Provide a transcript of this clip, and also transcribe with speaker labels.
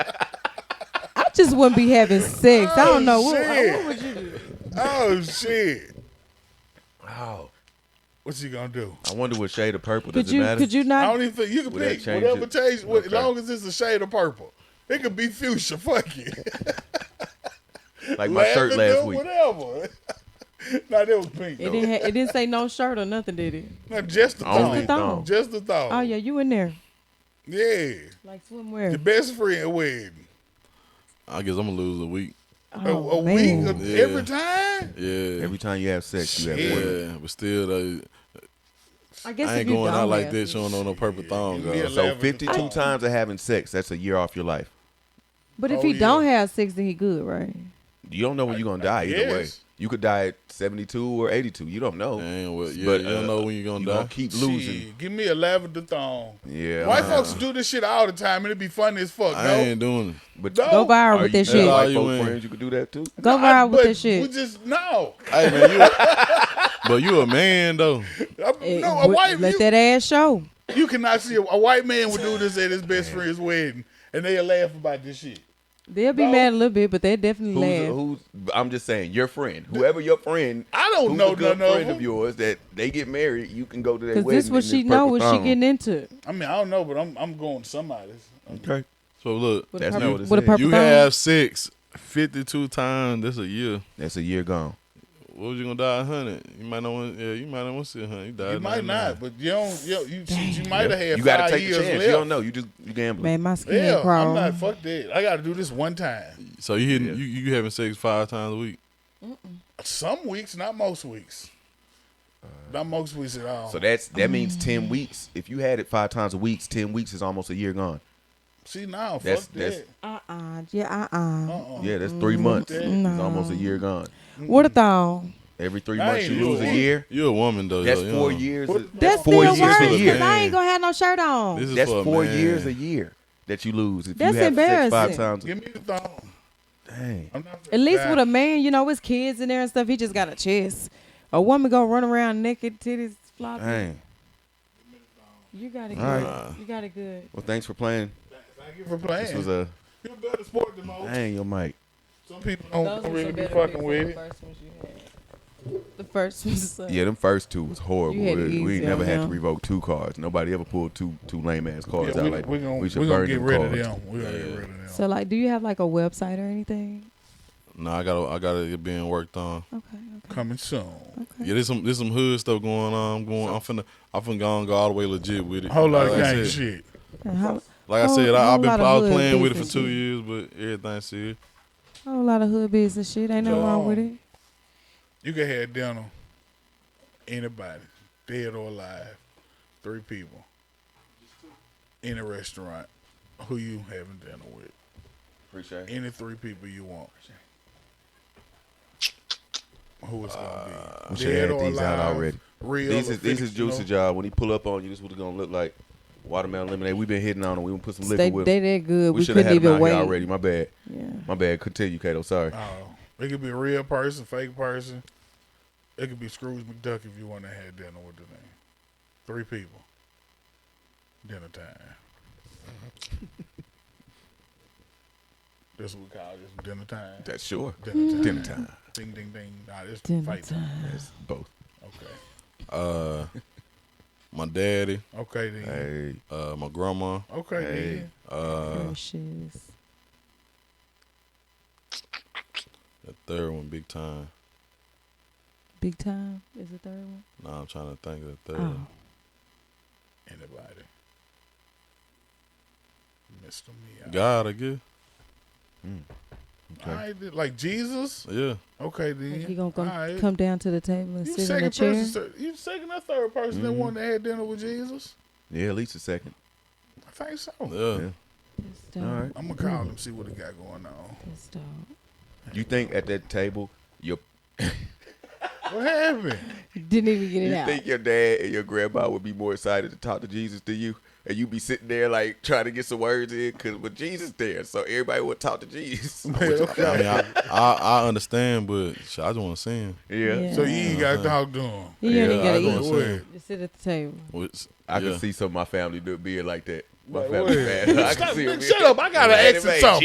Speaker 1: just wouldn't be having sex. I don't know. What,
Speaker 2: Oh, shit.
Speaker 1: what would you do?
Speaker 2: Oh shit! Oh, what's he gonna do?
Speaker 3: I wonder what shade of purple
Speaker 1: Could
Speaker 3: does
Speaker 1: you
Speaker 3: it matter?
Speaker 1: could you
Speaker 2: I
Speaker 1: not
Speaker 2: don't even think you can
Speaker 3: Would that
Speaker 2: pick
Speaker 3: change
Speaker 2: whatever
Speaker 3: it?
Speaker 2: change, what, as
Speaker 3: Okay.
Speaker 2: long as it's a shade of purple. It could be fuchsia. Fuck it.
Speaker 3: like my shirt
Speaker 2: Lavender,
Speaker 3: last week.
Speaker 2: Whatever. no, that was pink.
Speaker 1: it
Speaker 2: though.
Speaker 1: didn't ha- it didn't say no shirt or nothing, did it?
Speaker 2: no, just the
Speaker 3: Only
Speaker 1: the
Speaker 2: thong.
Speaker 1: thong.
Speaker 2: Just the thong.
Speaker 1: Oh yeah, you in there.
Speaker 2: Yeah.
Speaker 1: Like
Speaker 2: The
Speaker 1: swimwear.
Speaker 2: best friend wedding.
Speaker 4: I guess I'm gonna lose a week.
Speaker 2: a
Speaker 1: Oh,
Speaker 2: a
Speaker 1: man.
Speaker 2: week of-
Speaker 4: Yeah.
Speaker 2: every time.
Speaker 4: Yeah,
Speaker 3: Every time you have sex, you have
Speaker 2: Shit.
Speaker 3: one.
Speaker 4: yeah, but still, though,
Speaker 1: I guess
Speaker 4: I
Speaker 1: if
Speaker 4: ain't
Speaker 1: you
Speaker 4: going out
Speaker 1: don't
Speaker 4: like
Speaker 1: have-
Speaker 4: this. showing on no purple thong.
Speaker 2: Yeah.
Speaker 4: girl.
Speaker 3: So
Speaker 2: Lavender
Speaker 3: fifty-two
Speaker 2: thong.
Speaker 3: times of having sex, that's a year off your life.
Speaker 1: But if
Speaker 2: Oh,
Speaker 1: he
Speaker 2: yeah.
Speaker 1: don't have sex, then he good, right?
Speaker 3: You don't know when you're gonna die. Either way,
Speaker 2: guess.
Speaker 3: you could die at seventy-two or eighty-two. You don't know.
Speaker 4: Dang, well, yeah,
Speaker 3: But,
Speaker 4: you don't
Speaker 3: uh,
Speaker 4: know when you're gonna
Speaker 3: you
Speaker 4: die.
Speaker 3: gonna keep losing.
Speaker 2: Shit, give me a lavender thong.
Speaker 3: Yeah.
Speaker 2: White
Speaker 3: uh,
Speaker 2: folks do this shit all the time, and it'd be funny as fuck.
Speaker 4: I
Speaker 2: no,
Speaker 4: ain't doing it.
Speaker 3: But
Speaker 1: Go
Speaker 2: No.
Speaker 1: viral
Speaker 3: Are
Speaker 1: with
Speaker 3: you-
Speaker 1: that
Speaker 3: you got
Speaker 1: shit.
Speaker 4: Are
Speaker 3: White
Speaker 4: you
Speaker 3: folk
Speaker 4: in?
Speaker 3: friends, you could do that too.
Speaker 1: Go
Speaker 2: Oh, I-
Speaker 1: viral with
Speaker 2: but
Speaker 1: that
Speaker 2: We
Speaker 1: shit.
Speaker 2: just no.
Speaker 4: Hey man, you, but you a man though.
Speaker 2: I'm-
Speaker 1: It-
Speaker 2: no, a
Speaker 1: wh-
Speaker 2: white
Speaker 1: Eh, let
Speaker 2: you,
Speaker 1: that ass show.
Speaker 2: you cannot see a, a white man would do this at his best friend's wedding, and they'll laugh about this shit.
Speaker 1: They'll be
Speaker 2: No.
Speaker 1: mad a little bit, but they definitely
Speaker 3: Who's,
Speaker 1: laugh.
Speaker 3: who's I'm just saying your friend, whoever your friend.
Speaker 2: I don't
Speaker 3: who's
Speaker 2: know
Speaker 3: a good
Speaker 2: none of
Speaker 3: friend
Speaker 2: them.
Speaker 3: of yours that they get married. You can go to their
Speaker 1: Because
Speaker 3: wedding.
Speaker 1: this what
Speaker 3: in
Speaker 1: she
Speaker 3: this
Speaker 1: know
Speaker 3: purple
Speaker 1: what she
Speaker 3: thong.
Speaker 1: getting into.
Speaker 2: I mean, I don't know, but I'm I'm going to somebody's.
Speaker 3: Okay.
Speaker 4: So look,
Speaker 1: With
Speaker 3: That's
Speaker 1: a
Speaker 3: not what
Speaker 1: purple,
Speaker 3: it
Speaker 1: with a
Speaker 3: said.
Speaker 1: purple
Speaker 4: you
Speaker 1: thong.
Speaker 4: have sex 52 times. That's a year.
Speaker 3: That's a year gone.
Speaker 4: What was you gonna die a hundred? You might not want. Yeah, you might not want to see a hundred. You died.
Speaker 2: You might
Speaker 4: 99.
Speaker 2: not, but you don't. You you, shit, you might have had
Speaker 3: you
Speaker 2: five
Speaker 3: gotta take a
Speaker 2: years
Speaker 3: chance.
Speaker 2: left.
Speaker 3: You don't know. You just you gambling.
Speaker 1: Man, my skin
Speaker 2: Yeah, I'm
Speaker 1: crawl.
Speaker 2: not fuck that. I got to do this one time.
Speaker 4: So you hitting
Speaker 3: Yeah.
Speaker 4: you, you having sex five times a week?
Speaker 2: Some weeks, not most weeks. Not most weeks at all.
Speaker 3: So that's that means ten weeks. If you had it five times a week, ten weeks is almost a year gone.
Speaker 2: See now, fuck
Speaker 3: That's-
Speaker 2: that.
Speaker 3: that's-
Speaker 1: uh-uh. Yeah, uh-uh.
Speaker 2: Uh-uh.
Speaker 3: Yeah, that's three months.
Speaker 2: that-
Speaker 3: It's almost a year gone.
Speaker 1: What a thong.
Speaker 3: Every three
Speaker 2: I
Speaker 3: months
Speaker 2: ain't
Speaker 3: you lose
Speaker 2: doing
Speaker 3: a
Speaker 2: it.
Speaker 3: year.
Speaker 4: You a woman though.
Speaker 3: That's
Speaker 4: though, you
Speaker 3: four
Speaker 4: know.
Speaker 3: years.
Speaker 2: What-
Speaker 3: of-
Speaker 1: That's
Speaker 3: four
Speaker 1: still
Speaker 3: years
Speaker 1: worse
Speaker 3: a
Speaker 1: because
Speaker 3: year.
Speaker 1: I ain't going to have no shirt on.
Speaker 4: This is
Speaker 3: That's
Speaker 4: for a
Speaker 3: four
Speaker 4: man.
Speaker 3: years a year that you lose if
Speaker 1: That's
Speaker 3: you have sex five
Speaker 1: embarrassing.
Speaker 3: times.
Speaker 2: Give me the thong.
Speaker 3: Dang.
Speaker 2: I'm not
Speaker 1: At least
Speaker 2: Nah.
Speaker 1: with a man, you know, his kids in there and stuff, he just got a chest. A woman gonna run around naked, titties flopping.
Speaker 3: Dang.
Speaker 1: You got it good.
Speaker 3: All
Speaker 1: You got it good.
Speaker 3: Well, thanks for playing.
Speaker 2: Thank you for playing.
Speaker 3: This was a
Speaker 2: You're a better sport than most.
Speaker 3: dang your mic.
Speaker 2: Some people don't, don't really be fucking with it.
Speaker 1: The first ones. uh,
Speaker 3: Yeah, them first two was horrible.
Speaker 1: You had it
Speaker 3: We, we
Speaker 1: easy
Speaker 3: ain't never
Speaker 1: on
Speaker 3: had to
Speaker 1: them.
Speaker 3: revoke two cards. Nobody ever pulled two two lame ass cards
Speaker 2: Yeah,
Speaker 3: out
Speaker 2: we,
Speaker 3: like
Speaker 2: we gonna,
Speaker 3: we
Speaker 2: we
Speaker 3: should
Speaker 2: gonna
Speaker 3: burn
Speaker 2: get
Speaker 3: them
Speaker 2: rid of
Speaker 3: cards.
Speaker 2: them. We're gonna get rid of them.
Speaker 1: So like, do you have like a website or anything?
Speaker 4: No, I gotta I gotta get being worked on.
Speaker 1: Okay.
Speaker 2: Coming soon.
Speaker 4: Yeah, there's some there's some hood stuff going on. I'm going. I'm finna I'm finna go, go all the way legit with it.
Speaker 2: A whole lot
Speaker 4: like
Speaker 2: of
Speaker 4: I
Speaker 2: gang
Speaker 4: said-
Speaker 2: shit.
Speaker 1: okay. A whole,
Speaker 4: Like I
Speaker 1: Whole-
Speaker 4: said, I,
Speaker 1: whole
Speaker 4: I've been
Speaker 1: lot of
Speaker 4: I was
Speaker 1: hood
Speaker 4: playing with it for
Speaker 1: business
Speaker 4: two
Speaker 1: shit.
Speaker 4: years, but everything's serious.
Speaker 1: whole lot of hood business shit. Ain't no wrong with it.
Speaker 2: You can have dinner. Anybody, dead or alive, three people in a restaurant. Who you having dinner with?
Speaker 3: Appreciate it.
Speaker 2: Any three people you want. Who it's gonna be?
Speaker 3: Uh, We should have these out already.
Speaker 2: Real.
Speaker 3: These
Speaker 2: or
Speaker 3: is these is
Speaker 2: fictional.
Speaker 3: juicy job. When he pull up on you, this is what it's gonna look like. Watermelon lemonade. We've been hitting on them. We gonna put some liquor
Speaker 1: They,
Speaker 3: with.
Speaker 1: they
Speaker 3: them.
Speaker 1: that good.
Speaker 3: we
Speaker 1: We,
Speaker 3: should have
Speaker 1: couldn't
Speaker 3: had them
Speaker 1: even
Speaker 3: out
Speaker 1: wait.
Speaker 3: here already. My bad.
Speaker 1: Yeah.
Speaker 3: My bad. Continue, Kato. Sorry.
Speaker 2: Oh, it could be a real person, fake person. It could be Scrooge McDuck if you want to have dinner with the name. Three people. Dinner time. That's what we call this dinner time.
Speaker 3: That's sure.
Speaker 2: Dinner time.
Speaker 3: Dinner time.
Speaker 2: Ding ding ding. Nah, this
Speaker 1: Dinner
Speaker 2: fight time.
Speaker 3: That's both.
Speaker 2: Okay.
Speaker 4: Uh, my daddy,
Speaker 2: Okay then.
Speaker 3: Hey.
Speaker 4: uh, my grandma.
Speaker 2: Okay
Speaker 3: Hey.
Speaker 2: then.
Speaker 4: Uh,
Speaker 1: Precious.
Speaker 4: the third one, big time.
Speaker 1: Big time is the third one.
Speaker 4: Nah, I'm trying to think of
Speaker 3: uh,
Speaker 4: the third.
Speaker 1: Oh.
Speaker 4: one.
Speaker 2: Anybody. Mr. Miyagi.
Speaker 4: God, I guess.
Speaker 2: All right, then, like Jesus.
Speaker 4: Yeah.
Speaker 2: Okay
Speaker 1: Like
Speaker 2: then.
Speaker 1: he gonna come,
Speaker 2: All right.
Speaker 1: come down to the table and
Speaker 2: You
Speaker 1: sit in
Speaker 2: second
Speaker 1: a chair. Mm-hmm.
Speaker 2: person, sir- you second or third person that wanted to have dinner with Jesus?
Speaker 3: Yeah, at least a second.
Speaker 2: I think so.
Speaker 4: Yeah.
Speaker 3: Yeah.
Speaker 1: That's dope.
Speaker 3: All right.
Speaker 2: I'm gonna call him see what he got going on.
Speaker 1: That's dope.
Speaker 3: You think at that table your
Speaker 2: What happened?
Speaker 1: Didn't even get it
Speaker 3: You
Speaker 1: out.
Speaker 3: think your dad and your grandma would be more excited to talk to Jesus than you? And you be sitting there like trying to get some words in because with Jesus there, so everybody would talk to Jesus.
Speaker 4: I mean, I, I, I understand, but shit, I just want to see him.
Speaker 3: yeah.
Speaker 1: Yeah.
Speaker 2: So you ain't got talk to him.
Speaker 1: You ain't
Speaker 4: I
Speaker 1: even
Speaker 4: just wanna
Speaker 1: gotta
Speaker 4: see
Speaker 1: eat.
Speaker 2: Wait.
Speaker 4: him.
Speaker 1: Just sit at the table.
Speaker 4: What's-
Speaker 3: I can
Speaker 4: yeah.
Speaker 3: see some of my family do being like that. My
Speaker 2: Like,
Speaker 3: family
Speaker 2: wait.
Speaker 3: bad. I
Speaker 2: Stop,
Speaker 3: can see 'em
Speaker 2: man, shut up. I gotta
Speaker 3: Right,
Speaker 2: ask
Speaker 3: man.
Speaker 2: him something.